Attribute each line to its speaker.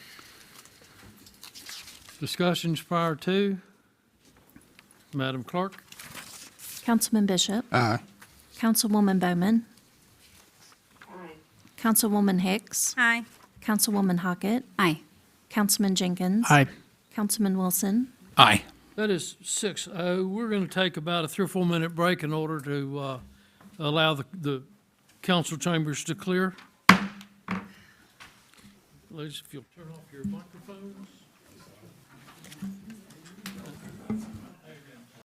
Speaker 1: discussions prior to? Madam Clerk?
Speaker 2: Councilman Bishop.
Speaker 3: Aye.
Speaker 2: Councilwoman Bowman.
Speaker 4: Aye.
Speaker 2: Councilwoman Hicks.
Speaker 5: Aye.
Speaker 2: Councilwoman Hockett.
Speaker 5: Aye.
Speaker 2: Councilman Jenkins.
Speaker 3: Aye.
Speaker 2: Councilman Wilson.
Speaker 3: Aye.
Speaker 1: That is six oh. We're going to take about a three or four minute break in order to uh, allow the, the council chambers to clear. Ladies, if you'll turn off your microphones.